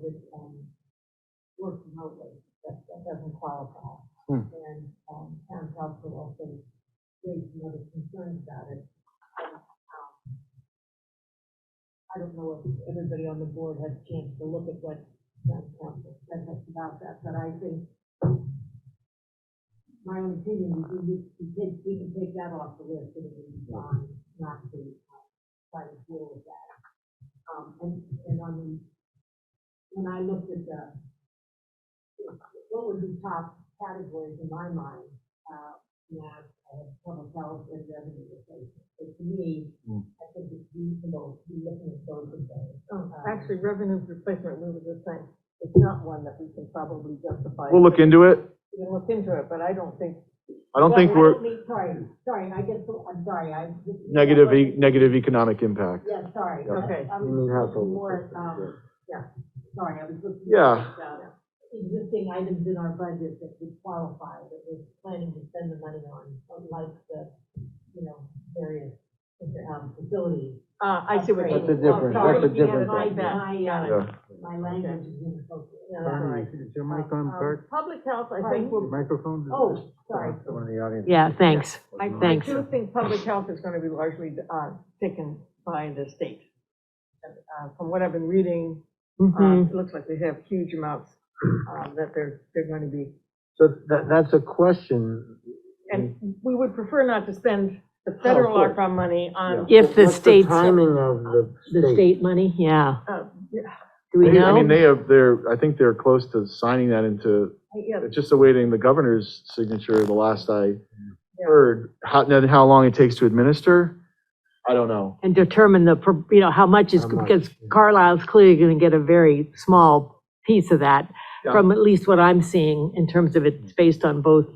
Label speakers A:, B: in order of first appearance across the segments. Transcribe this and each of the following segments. A: could, um, work remotely, that, that doesn't qualify.
B: Hmm.
A: And, um, town council also raised some other concerns about it. And, um, I don't know if everybody on the board had a chance to look at what town council said about that, but I think my own opinion is we, need to take- we can take that off the list, and we, um, not to uh, try to deal with that. Um, and, and on the, when I looked at the, what would be top categories in my mind, uh, math, uh, public health, and revenue replacement. So to me,
B: Mm.
A: I think it's reasonable to be looking at both of those.
C: Oh,
A: Um,
C: Actually, revenue replacement, we were just saying, it's not one that we can probably justify.
B: We'll look into it.
C: We can look into it, but I don't think,
B: I don't think
A: Well,
B: we're
A: mean- Sorry, sorry, I guess, I'm sorry, I. this is-
B: negative, e- negative economic impact.
A: Yeah, sorry.
B: Yeah.
C: Okay.
A: I was
D: Mm,
A: looking
D: household
A: more,
D: assistance,
A: um, yeah, sorry, I was looking.
B: Yeah.
A: at, uh, Existing items in our budget that would qualify, that we're planning to spend the money on, like the, you know, various, um, facilities.
C: uh, I see what you
A: That's
C: mean.
A: a
D: different-
C: Sorry,
D: that's a
C: you had
D: different
C: my
D: thing.
C: back.
A: My,
C: Got it.
B: Yeah.
A: uh, my language is inappropriate.
C: Yeah, that's all
D: Bonnie,
C: right.
D: is is your mic on,
C: Um,
D: Bert?
C: Public health, I
A: Pardon?
C: think, will-
D: Microphone?
A: Oh, sorry.
D: Someone in the audience.
E: Yeah, thanks.
C: I I
E: Thanks.
C: do think public health is gonna be largely, uh, taken by the state. Uh, From what I've been reading,
E: Mhm.
A: Hmm.
C: um, it looks like they have huge amounts, um, that they're, they're gonna be
D: So that, that's a question.
C: And we would prefer not to spend the
D: of
C: federal
D: course.
C: ARPA money on,
E: If the
D: What's
E: state's-
D: Timing of the
E: The
D: state.
E: state money, yeah.
C: uh, yeah,
E: Do we
B: They- I mean,
E: know?
B: they have, they're, I think they're close to signing that into,
C: yeah,
B: it's just awaiting the governor's signature, the last I heard. How, then how long it takes to administer? I don't know.
E: And determine the, pro- you know, how much is,
D: How much,
E: because
D: yeah.
E: Carlisle's clearly going to get a very small piece of that,
B: Yeah.
E: from at least what I'm seeing in terms of it's
D: Mm-hmm.
E: based on both,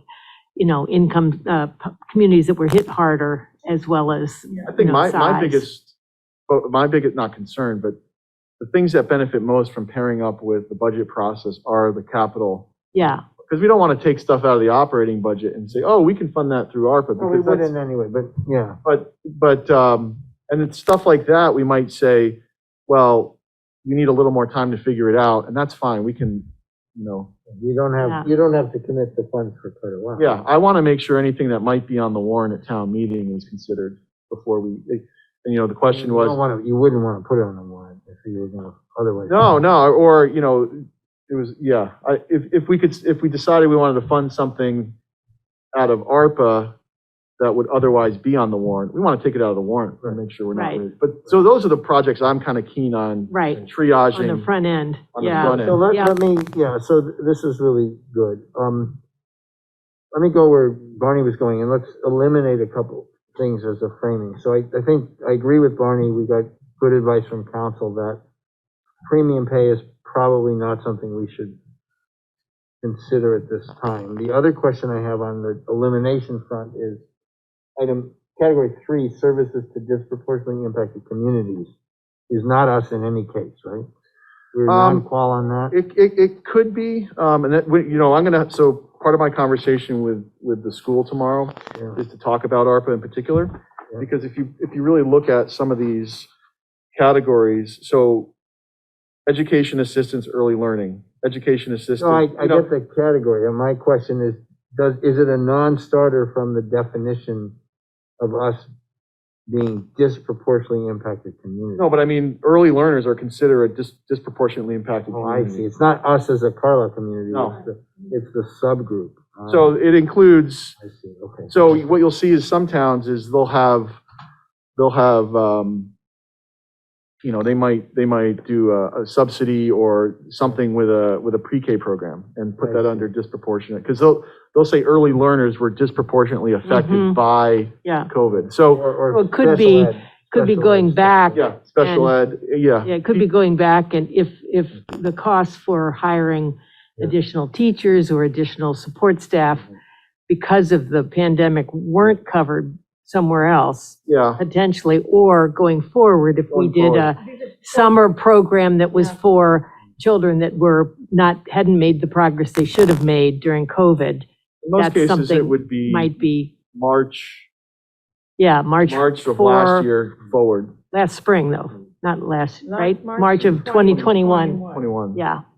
E: you know, income, uh, p- communities that were hit harder as well as,
B: I
E: you
B: think
E: know,
B: my, my
E: size.
B: biggest, oh, my biggest, not concern, but the things that benefit most from pairing up with the budget process are the capital.
E: Yeah,
B: Because we don't want to take stuff out of the operating budget and say, oh, we can fund that through ARPA.
D: Well, we
B: because that's-
D: wouldn't anyway, but yeah.
B: But, but, um, and it's stuff like that, we might say, well, we need a little more time to figure it out, and that's fine, we can, you know.
D: You don't have,
E: Yeah.
D: you don't have to commit the funds for quite a while.
B: Yeah, I want to make sure anything that might be on the warrant at town meeting is considered before we, and, you know, the question
D: You don't
B: was,
D: want to, you wouldn't want to put it on the warrant if you were going to, otherwise.
B: no, no, or, you know, it was, yeah, I, if, if we could, if we decided we wanted to fund something out of ARPA that would otherwise be on the warrant, we want to take it out of the warrant, and make sure we're not,
E: Right.
B: really- but, so those are the projects I'm kind of keen on
E: right, on
B: triaging.
E: the front end,
B: On the
E: yeah.
B: front
D: So let,
E: Yeah.
D: let me, yeah, so th- this is really good. Um, let me go where Barney was going and let's eliminate a couple things as a framing. So I, I think, I agree with Barney, we got good advice from council that premium pay is probably not something we should consider at this time. The other question I have on the elimination front is item, category three, services to disproportionately impacted communities is not us in any case, right? We're
B: Um,
D: non-qual on that?
B: It, it, it could be, um, and that, we- you know, I'm gonna, so part of my conversation with, with the school tomorrow
D: Yeah.
B: is to talk about ARPA in particular,
D: Yeah.
B: because if you, if you really look at some of these categories, so education assistance, early learning, education assistance.
D: No, I, I
B: you know,
D: get the category, and my question is, does, is it a non-starter from the definition of us being disproportionately impacted community?
B: No, but I mean, early learners are considered a dis- disproportionately impacted
D: Oh, I
B: community.
D: see, it's not us as a Carlisle community,
B: No.
D: it's the, it's the subgroup. Ah,
B: So it includes
D: I see, okay.
B: So what you'll see is some towns is they'll have, they'll have, um, you know, they might, they might do a a subsidy or something with a, with a pre-K program and put that under disproportionate. Because they'll, they'll say early learners were disproportionately affected
E: Mhm.
B: by
E: Yeah.
B: COVID. So,
D: Or- or
E: Well, it could be-
D: special ed,
E: Could be
D: special
E: going
D: ed.
E: back.
B: yeah, special ed, yeah.
E: Yeah, it could be going back and if, if the cost for hiring
D: Mm-hmm. Yeah.
E: additional teachers or additional support staff
D: Mm-hmm.
E: because of the pandemic weren't covered somewhere else
B: Yeah,
E: potentially, or going forward, if we
B: Going
E: did a summer program that was
C: Yeah.
E: for children that were not, hadn't made the progress they should have made during COVID,
B: in most
E: That's
B: cases, it
E: something
B: would be
E: might be,
B: March,
E: yeah, March
B: March of
E: for-
B: last year forward.
E: last spring though. not last,
C: Not
E: right?
C: March
E: March of 2021,
B: 21.
E: yeah.